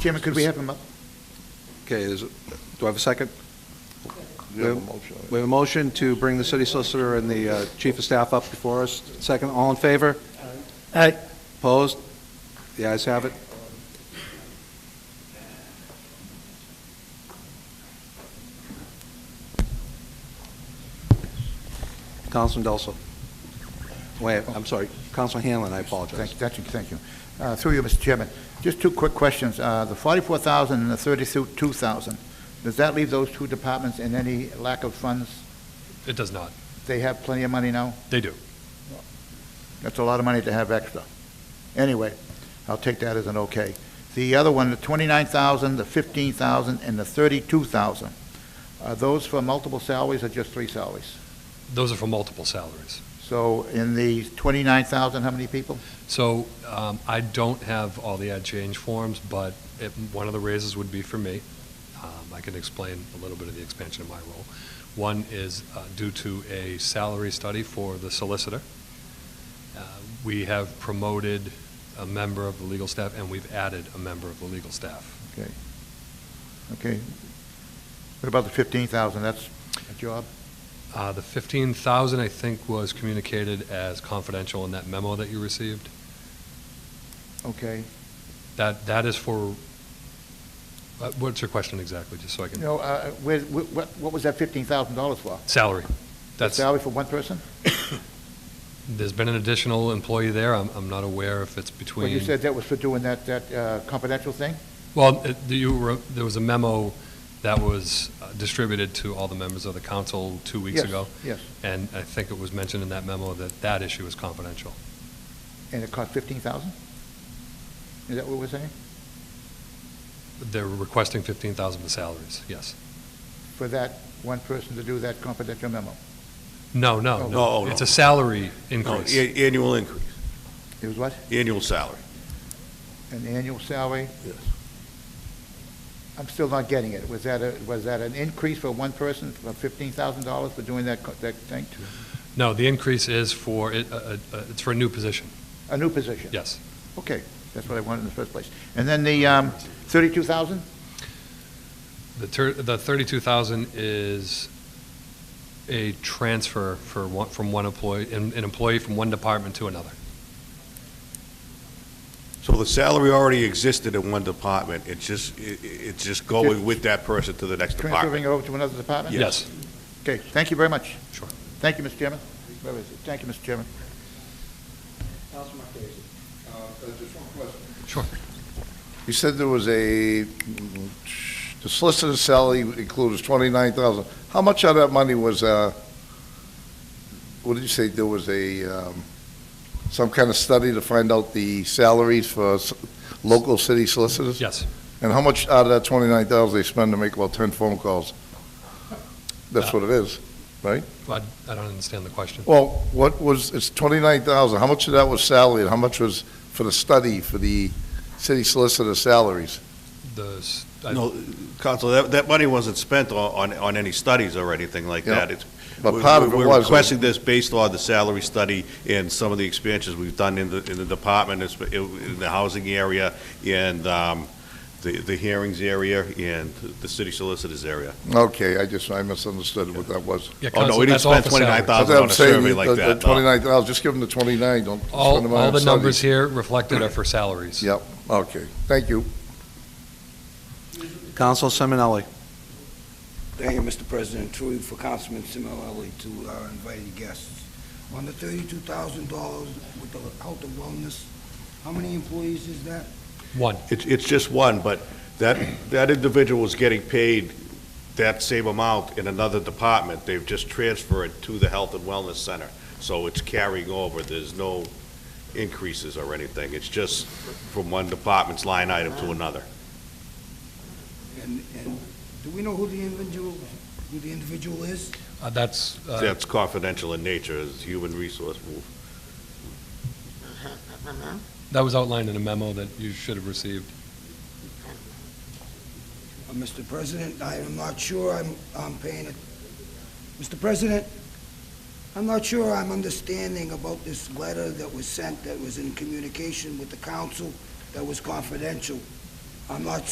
Chairman, could we have him up? Okay, is, do I have a second? You have a motion. We have a motion to bring the city solicitor and the uh, chief of staff up before us. Second, all in favor? Aye. Opposed? The ayes have it. Councilman Delso. Wait, I'm sorry, Councilman Hanlon, I Thank, apologize. thank you, thank you. Uh, Through you, Mr. Chairman, just two quick questions. Uh, The 44,000 and the 32,000, does that leave those two departments in any lack of funds? It does not. They have plenty of money now? They do. That's a lot of money to have extra. Anyway, I'll take that as an okay. The other one, the 29,000, the 15,000, and the 32,000, are those for multiple salaries or just three salaries? Those are for multiple salaries. So in the 29,000, how many people? So um, I don't have all the ad change forms, but it- one of the raises would be for me. Um, I can explain a little bit of the expansion of my role. One is uh, due to a salary study for the solicitor. Uh, We have promoted a member of the legal staff, and we've added a member of the legal staff. Okay. Okay. What about the 15,000? That's a job? Uh, The 15,000, I think, was communicated as confidential in that memo that you received. Okay. That, that is for, uh, what's your question exactly, just so I You can, know, uh, where- wh- what what was that $15,000 for? salary. That's, Salary for one person? there's been an additional employee there, I'm, I'm not aware if it's Well, you between, said that was for doing that that uh, confidential thing? well, it- you were, there was a memo that was uh, distributed to all the members of the council two weeks Yes, ago. Yes, And I think it was mentioned in that memo that that issue is confidential. and it cost 15,000? Is that what we're saying? They're requesting 15,000 for salaries, yes. For that one person to do that confidential memo? No, Oh. no, No, no, no. it's a salary No, increase. a- Annual increase, It was what? annual salary. An annual salary? Yes. I'm still not getting it. Was that, a was that an increase for one person, for $15,000 for doing that co- that thing? No, the increase is for, it- uh, uh, uh, it's for a new position, A new position? yes. Okay, that's what I wanted in the first place. And then the um, 32,000? The tur- the 32,000 is a transfer for one, from one employee, an an employee from one department to another. So the salary already existed in one department, it's just, i- i- it's just going with that person to the next Transferring it department. over to another department? Yes. Okay, thank you very much. Sure. Thank you, Mr. Chairman. Where is it? Thank you, Mr. Chairman. Councilman Casey, uh, uh, just one question. Sure. You said there was a, the solicitor's salary includes twenty-nine thousand. How much of that money was, uh, what did you say, there was a, um, some kind of study to find out the salaries for s- local city solicitors? Yes. And how much out of that twenty-nine thousand they spend to make about ten phone calls? That's what it is. But I don't understand the question. Well, what was, it's twenty-nine thousand, how much of that was salary, and how much was for the study, for the city solicitor salaries? The, s- I- No, Council, that, that money wasn't spent on, on- on any studies or anything like Yeah. that. It's- But we're- part of it We're was, requesting this based on the salary study and some of the expansions we've done in the, in the department, it's- in the housing area, and um, the, the hearings area, and the city solicitors area. okay, I just, I misunderstood what that was. yeah, Oh, no, Council, we didn't that's all spend for salary. twenty-nine thousand That's what on I'm a saying, survey the- like the that, no. Twenty-nine thousand, just give them the twenty-nine, don't spend them All, on all the studies. numbers here reflected are for salaries. Yep, okay, thank you. Councilman Simonelli. Thank you, Mr. President. Truly for Councilman Simonelli to our invited guests. On the thirty-two thousand dollars with the health and wellness, how many employees is that? One, It's, it's just one, but that, that individual is getting paid that same amount in another department. They've just transferred it to the Health and Wellness Center. So it's carrying over. There's no increases or anything. It's just from one department's line item to another. And, and do we know who the individual, who the individual is? Uh, that's, uh, That's confidential in nature, is human resource. that was outlined in a memo that you should have received. Uh, Mr. President, I am not sure I'm, I'm paying it. Mr. President, I'm not sure I'm understanding about this letter that was sent that was in communication with the council that was confidential. I'm not